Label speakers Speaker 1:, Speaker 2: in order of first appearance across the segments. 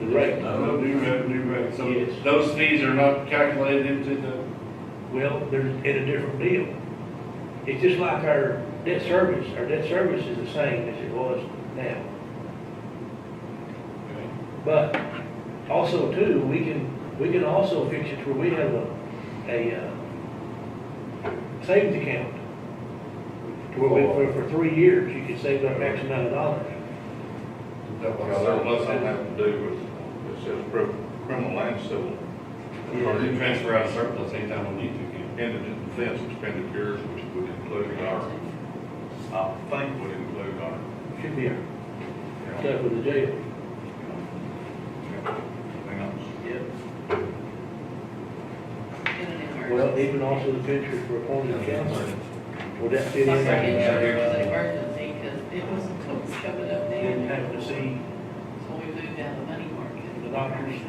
Speaker 1: Correct.
Speaker 2: No, new rec, new rec, so
Speaker 1: Yes.
Speaker 2: those fees are not calculated into the,
Speaker 1: Well, they're in a different deal. It's just like our debt service, our debt service is the same as it was now. But also too, we can, we can also fix it where we have a, a, uh, savings account. To where we, for, for three years, you can save up X amount of dollars.
Speaker 2: that was
Speaker 3: Well, that was
Speaker 2: surplus.
Speaker 3: something
Speaker 2: in-
Speaker 3: having to do with, it says crim- criminal and civil,
Speaker 2: Or you transfer out surplus anytime we need to, can
Speaker 3: indigent defense expenditures, which would include our, I think would include our,
Speaker 1: Should be our
Speaker 3: you know,
Speaker 1: stuff with the jail.
Speaker 3: you know, everything else.
Speaker 1: Yep.
Speaker 4: Well,
Speaker 1: Well, even also the pictures for appointed counsel. Would that fit in?
Speaker 4: My second trigger was an emergency, because it was, it was coming up then,
Speaker 1: Didn't have to see
Speaker 4: so we moved out of the money market.
Speaker 1: The doctors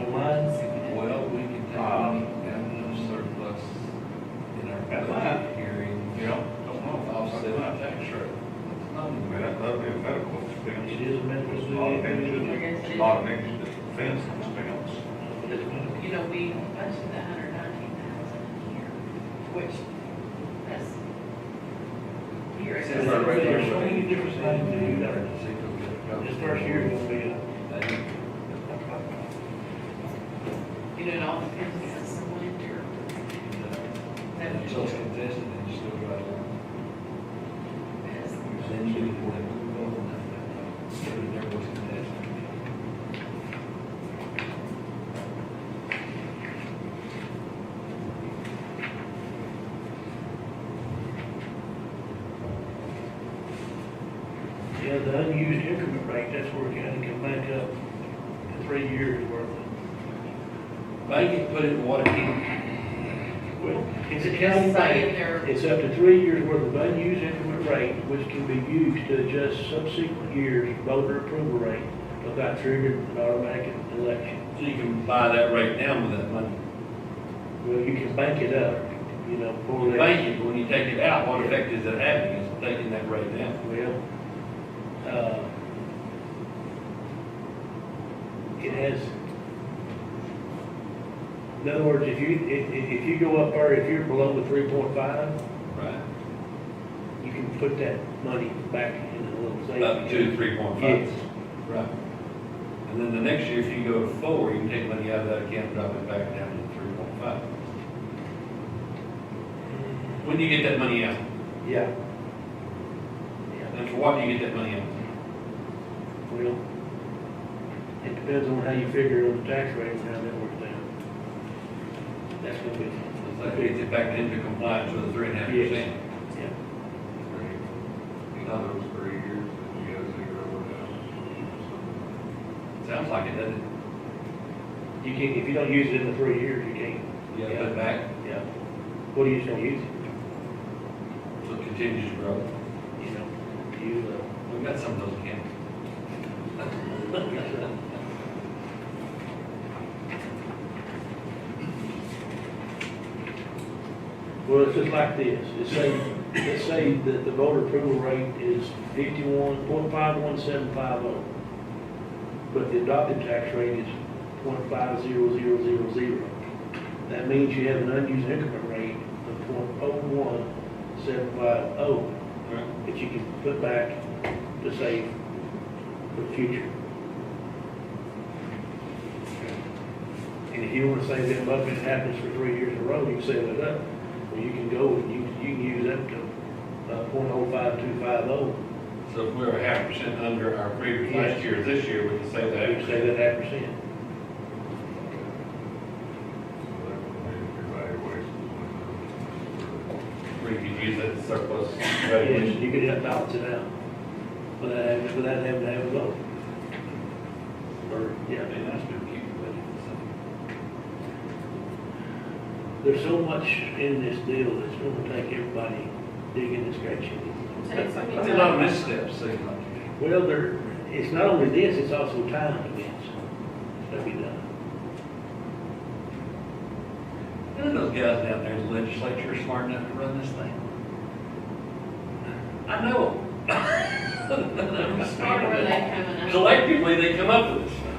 Speaker 1: online?
Speaker 5: Well, we can
Speaker 3: Uh,
Speaker 5: take money out of surplus in our
Speaker 3: That's fine.
Speaker 5: budget hearing.
Speaker 3: You know, don't know, I'll say my tax rate.
Speaker 5: It's
Speaker 3: I mean,
Speaker 5: not-
Speaker 3: that, that'd be a medical
Speaker 1: It
Speaker 3: expense.
Speaker 1: is a medical
Speaker 3: A lot of
Speaker 1: study.
Speaker 3: indigent, a lot of indigent defense expense.
Speaker 4: You know, we budgeted a hundred nineteen thousand a year, which, that's. Here.
Speaker 5: It's
Speaker 1: There's
Speaker 5: our regular-
Speaker 1: so many different things to do there. This first year is gonna be a,
Speaker 4: You know, it all depends on the winter. That
Speaker 5: It's all contested and you still got it.
Speaker 4: is-
Speaker 5: Then you can work it over and over. So it never was contested.
Speaker 1: yeah, the unused increment rate, that's where county can make up the three years worth.
Speaker 5: They can put it in water heat.
Speaker 1: Well, it's a
Speaker 4: Just
Speaker 1: county
Speaker 4: saying
Speaker 1: bank.
Speaker 4: there,
Speaker 1: It's up to three years worth of unused increment rate, which can be used to adjust subsequent years' voter approval rate without triggering an automatic election.
Speaker 2: So you can buy that right now with that money.
Speaker 1: Well, you can bank it up, you know, for that.
Speaker 2: Thank you, when you take it out, what effect is it having, is taking that right now?
Speaker 1: Well, uh, it has, in other words, if you, if, if if you go up there, if you're below the three point five,
Speaker 2: Right.
Speaker 1: you can put that money back in the little savings.
Speaker 2: Up to three point five.
Speaker 1: Yes,
Speaker 2: Right. And then the next year, if you go to four, you can take money out of that account, and drop it back down to three point five. When do you get that money out?
Speaker 1: yeah.
Speaker 2: And for what do you get that money out?
Speaker 1: Well, it depends on how you figure on the tax rate and how that works out. That's gonna be,
Speaker 2: It's like it gets it back into compliance with the three and a half percent.
Speaker 1: yeah.
Speaker 3: In other words, three years, and you got zero or down.
Speaker 2: Sounds like it, doesn't it?
Speaker 1: You can't, if you don't use it in the three years, you can't,
Speaker 2: You gotta put it back,
Speaker 1: yeah. What are you just gonna use it?
Speaker 2: so it continues to grow.
Speaker 1: you know, you,
Speaker 2: We've got some of those accounts.
Speaker 1: uh, you Well, it's just like this, it's say, let's say that the voter approval rate is fifty-one, point five one seven five oh. But the adopted tax rate is point five zero zero zero zero. That means you have an unused increment rate of point oh one seven five oh. that you can put back to save for the future. And if you wanna save that up and it happens for three years in a row, you can save it up, well, you can go and you, you can use up to, uh, point oh five two five oh,
Speaker 2: So if we were half percent under our previous last year, this year, we could say
Speaker 1: you can
Speaker 2: that.
Speaker 1: save that half percent.
Speaker 3: So that would be
Speaker 2: We
Speaker 3: evaluation.
Speaker 2: could use that surplus
Speaker 1: Yes,
Speaker 2: valuation.
Speaker 1: you could have balance it out, without having, without having to have a vote. Or, yeah,
Speaker 2: That'd be nice to keep it, but
Speaker 1: there's so much in this deal that's gonna take everybody digging and scratching.
Speaker 4: Takes some
Speaker 2: it's- There's a lot of
Speaker 4: time.
Speaker 2: missteps, seems like to me.
Speaker 1: Well, there, it's not only this, it's also time events that we done.
Speaker 2: None of those guys down there in the legislature are smart enough to run this thing. I know. them.
Speaker 4: Or were they coming up?
Speaker 2: Collectively, they come up with this.